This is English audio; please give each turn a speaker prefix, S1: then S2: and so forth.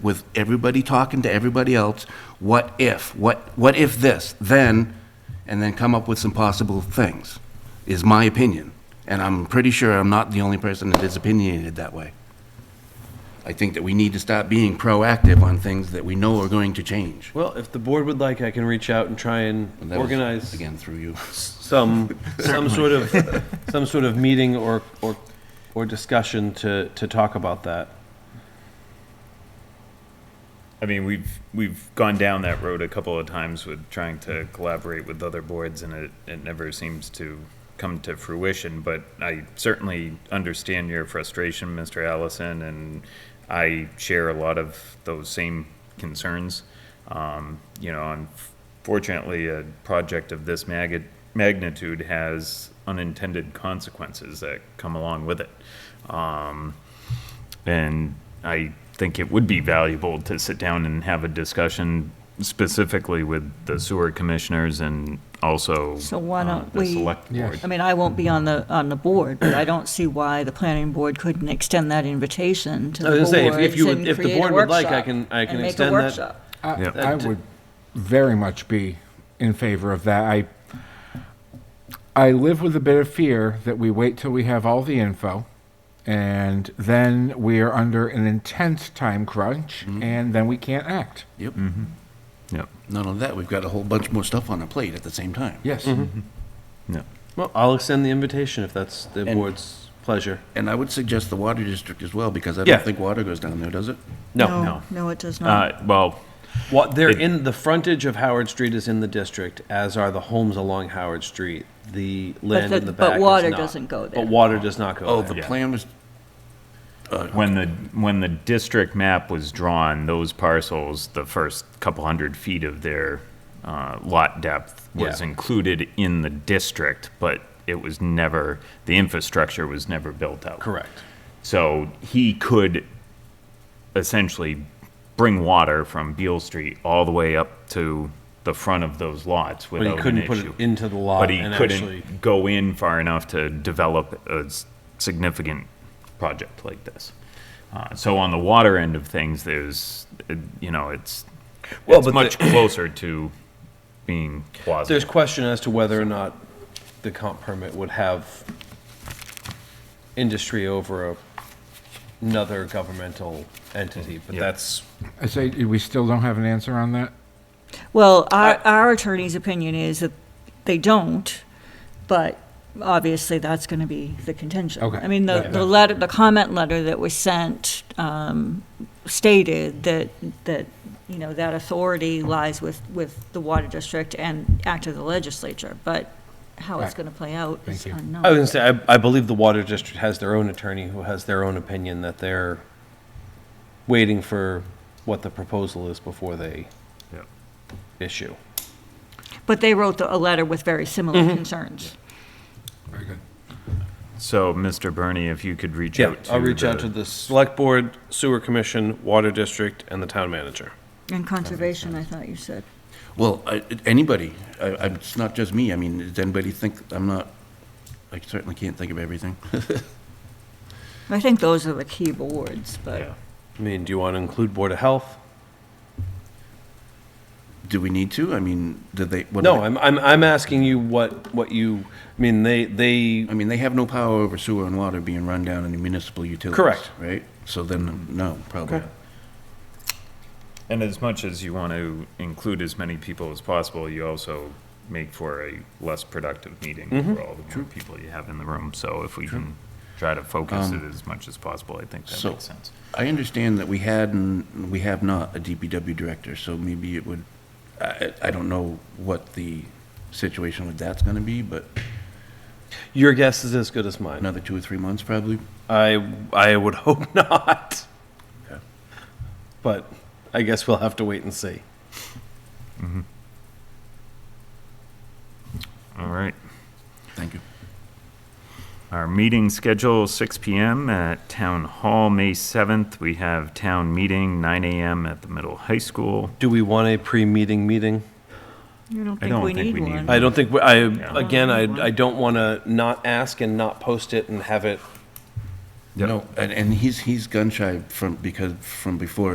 S1: with everybody talking to everybody else, what if, what, what if this, then, and then come up with some possible things, is my opinion. And I'm pretty sure I'm not the only person that is opinionated that way. I think that we need to stop being proactive on things that we know are going to change.
S2: Well, if the board would like, I can reach out and try and
S1: And that was,
S2: organize
S1: Again, through you.
S2: some, some sort of, some sort of meeting or, or, or discussion to, to talk about that.
S3: I mean, we've we've gone down that road a couple of times with trying to collaborate with other boards, and it it never seems to come to fruition. But I certainly understand your frustration, Mr. Allison, and I share a lot of those same concerns. Um, you know, unfortunately, a project of this mag- magnitude has unintended consequences that come along with it. Um, and I think it would be valuable to sit down and have a discussion specifically with the sewer commissioners and also
S4: So why
S3: uh,
S4: don't
S3: the
S4: we-
S3: select board.
S4: I mean, I won't be on the, on the board, but I don't see why the planning board couldn't extend that invitation to
S2: I was
S4: the
S2: gonna say, if- if
S4: boards
S2: you would-
S4: and
S2: if the
S4: create a
S2: board would like, I
S4: workshop
S2: can- I
S4: and
S2: can
S4: make a
S2: extend that.
S4: workshop.
S3: Yeah.
S5: I, I would very much be in favor of that. I I live with a bit of fear that we wait till we have all the info, and then we are under an intense time crunch, and then we can't act.
S1: Yep.
S3: Yep,
S1: Not only that, we've got a whole bunch more stuff on our plate at the same time.
S5: Yes.
S3: yep.
S2: Well, I'll extend the invitation if that's the
S1: And-
S2: board's pleasure.
S1: And I would suggest the water district as well, because I
S2: Yeah.
S1: don't think water goes down there, does it?
S2: No,
S3: no.
S4: No, it does not.
S3: Uh, well,
S2: what, they're
S3: It-
S2: in, the frontage of Howard Street is in the district, as are the homes along Howard Street. The land
S4: the-
S2: in the
S4: but
S2: back is
S4: water
S2: not.
S4: doesn't go there.
S2: But water does not go
S1: Oh,
S2: there.
S1: the
S3: Yeah.
S1: plan was,
S3: when the, when the district map was drawn, those parcels, the first couple hundred feet of their uh, lot depth was
S2: Yeah.
S3: included in the district, but it was never, the infrastructure was never built out.
S2: Correct.
S3: So he could essentially bring water from Beale Street all the way up to the front of those lots
S2: But he
S3: without an
S2: couldn't put it
S3: issue.
S2: into the lot
S3: But he
S2: and actually.
S3: couldn't go in far enough to develop a s- significant project like this. Uh, So on the water end of things, there's, uh, you know, it's,
S2: Well,
S3: it's
S2: but
S3: much
S2: the-
S3: closer to being quasi.
S2: There's question as to whether or not the comp permit would have industry over a- another governmental entity, but
S3: Yeah.
S2: that's,
S5: I say we still don't have an answer on that.
S4: Well, our, our attorney's opinion is that they don't, but obviously that's going to be the contention.
S5: Okay.
S4: I mean, the,
S5: Right.
S4: the letter, the comment letter that was sent um, stated that, that, you know, that authority lies with, with the water district and act of the legislature, but how it's
S5: Right.
S4: going to play out is
S5: Thank you.
S4: unknown.
S2: I was gonna say, I, I believe the water district has their own attorney who has their own opinion that they're waiting for what the proposal is before they
S3: Yeah.
S2: issue.
S4: But they wrote the- a letter with very similar concerns.
S5: Very good.
S3: So, Mr. Bernie, if you could reach
S2: Yeah,
S3: out to
S2: I'll reach out
S3: the-
S2: to the select board, sewer commission, water district, and the town manager.
S4: And conservation, I thought you said.
S1: well, I- anybody, I- I- it's not just me, I mean, does anybody think I'm not, I certainly can't think of everything.
S4: I think those are the key boards,
S3: Yeah.
S4: but
S2: I mean, do you want to include board of health?
S1: Do we need to? I mean, did they? what do
S2: No,
S1: they-
S2: I'm, I'm, I'm asking you what, what you, I mean, they, they,
S1: I mean, they have no power over sewer and water being run down in the municipal utilities.
S2: Correct.
S1: Right? So then, no, probably.
S2: Okay.
S1: not.
S3: And as much as you want to include as many people as possible, you also make for a less productive meeting for all the more people you have in the room. So if we can try to focus it as much as possible, I think that
S1: so-
S3: makes sense.
S1: I understand that we had and we have not a DPW director, so maybe it would, I, I don't know what the situation with that's gonna be, but
S2: your guess is as good as mine.
S1: another two or three months probably.
S2: I, I would hope not.
S1: Okay.
S2: But I guess we'll have to wait and see.
S3: All right.
S1: Thank you.
S3: Our meeting schedule, 6 PM at Town Hall, May 7th. We have town meeting, 9 AM at the middle high school.
S2: Do we want a pre-meeting meeting?
S4: you don't
S3: I
S4: think
S3: don't
S4: we
S3: think
S4: need
S3: we need
S4: one.
S2: I don't think, we- I,
S3: Yeah.
S2: again, I, I don't want to not ask and not post it and have it
S3: Yep.
S1: No, and, and he's, he's gun shy from, because, from before